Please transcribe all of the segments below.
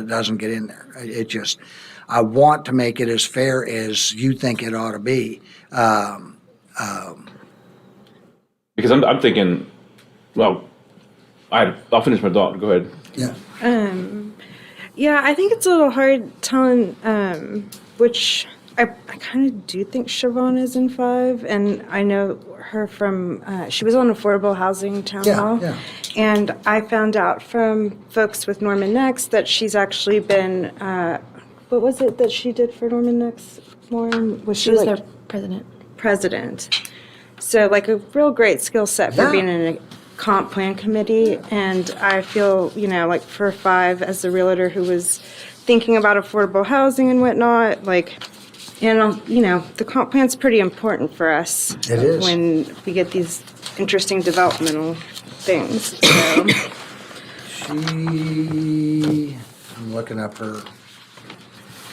It doesn't get in there. It it just, I want to make it as fair as you think it ought to be. Because I'm, I'm thinking, well, I, I'll finish my thought. Go ahead. Yeah. Yeah, I think it's a little hard telling um, which I, I kind of do think Siobhan is in five, and I know her from uh, she was on affordable housing town Yeah, hall, yeah. and I found out from folks with Norman Next that she's actually been uh, what was it that she did for Norman Next? Lauren was she, She was like their president. president? So like a real great skill set for Yeah. being in a comp plan committee. And I feel, you know, like for five as the realtor who was thinking about affordable housing and whatnot, like, and, I'll- you know, the comp plan's pretty important for us. It is. When we get these interesting developmental things. So, She, I'm looking up her,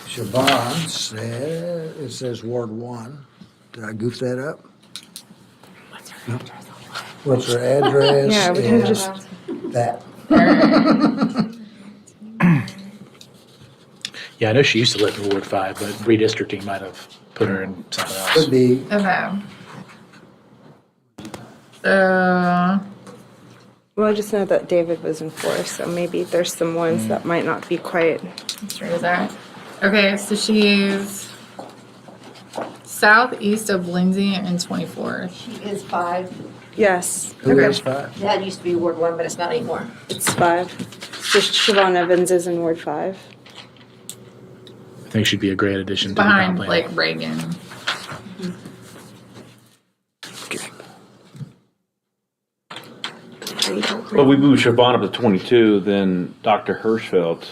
Siobhan said, it says Ward One. Did I goof that up? What's her address? Yeah, we can and just- That. Yeah, I know she used to live in Ward Five, but redistricting might have put her in something else. Could be, Okay. So, well, I just know that David was in four, so maybe there's some ones that might not be quite. let's read that. Okay, so she's southeast of Lindsay and 24th. She is five. Yes, who Okay. is five? That used to be Ward One, but it's not anymore. it's five. So Siobhan Evans is in Ward five. I think she'd be a great addition to the comp Behind plan. like Reagan. Well, we move Siobhan up to 22, then Dr. Hirschfeld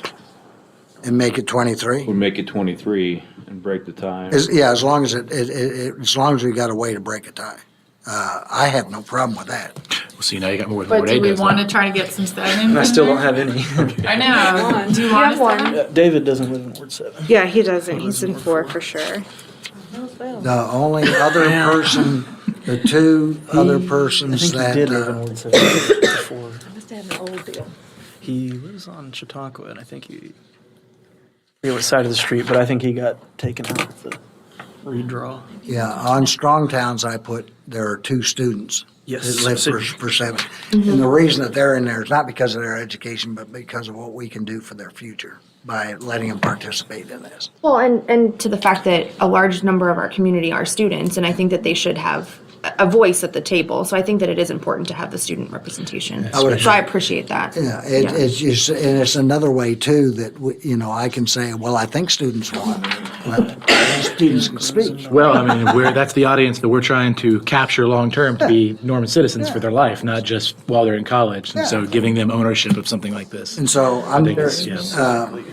And make it twenty-three? would make it 23 and break the tie. As- Yeah, as long as it, it, it, it- as long as we got a way to break a tie. Uh, I have no problem with that. So you know you got more than But Ward do Eight we does. want to try to get some stadiums? And I still don't have any. I know. Do you want us to have Uh, David doesn't live in Ward Seven. Yeah, he doesn't. He's in four for sure. The only other person, the two other I persons think that. he did live uh, in Ward Seven before. Must have an old deal. He lives on Chautauqua, and I think he. I forget what side of the street, but I think he got taken out of the redraw. Yeah, on Strong Towns, I put, there are two students. Yes. That live for, for seven. And the reason that they're in there is not because of their education, but because of what we can do for their future by letting them participate in this. Well, and, and to the fact that a large number of our community are students, and I think that they should have a- a voice at the table. So I think that it is important to have the student representation. I would So I appreciate that. Yeah, Uh, it, Yeah. it's just, and it's another way too that, we- you know, I can say, well, I think students want, but students can speak. Well, I mean, we're, that's the audience that we're trying to capture long-term to be Norman citizens for their life, not just while they're in college. And so giving them ownership of something like this. And so I'm, think it's- very- uh, yes.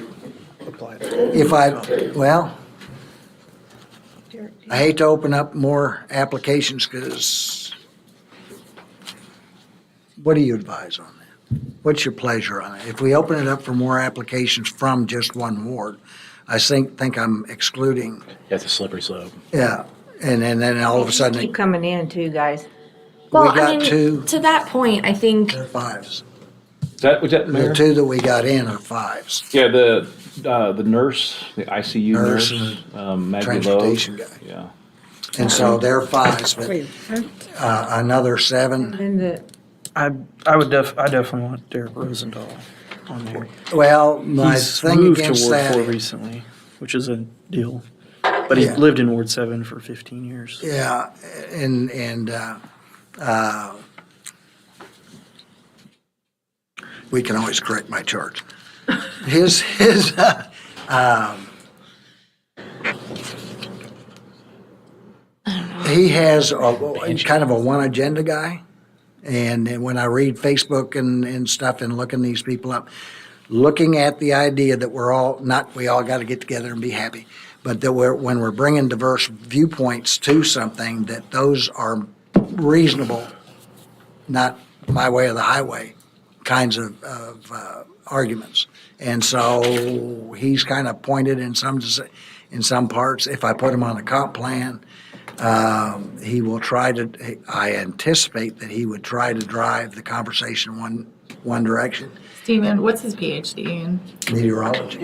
if I, well, I hate to open up more applications because what do you advise on that? What's your pleasure on it? If we open it up for more applications from just one ward, I think, think I'm excluding, That's a slippery slope. yeah. And then, then all of a sudden, Keep it- coming in too, guys. Well, we I got two. mean, to that point, I think, they're fives. Is that, was that The Mayor? two that we got in are fives. Yeah, the, uh, the nurse, the ICU Nurse nurse, and um, Maggie Lowe. transportation guy. Yeah. And so they're fives, but uh, another seven. And the, I I would def I definitely want Derek Rosendahl on there. Well, my He's thing moved against to Ward Four that, recently, which is a deal. But he's Yeah. lived in Ward Seven for 15 years. yeah, and, and, uh, uh, we can always correct my charge. His, his, uh, um, he has a, he's kind of a one agenda guy. And then when I read Facebook and, and stuff and looking these people up, looking at the idea that we're all, not we all got to get together and be happy, but that we're, when we're bringing diverse viewpoints to something, that those are reasonable, not my way or the highway kinds of, of uh, arguments. And so he's kind of pointed in some, in some parts. If I put him on a comp plan, he will try to, I anticipate that he would try to drive the conversation one, one direction. Stephen, what's his PhD in? meteorology.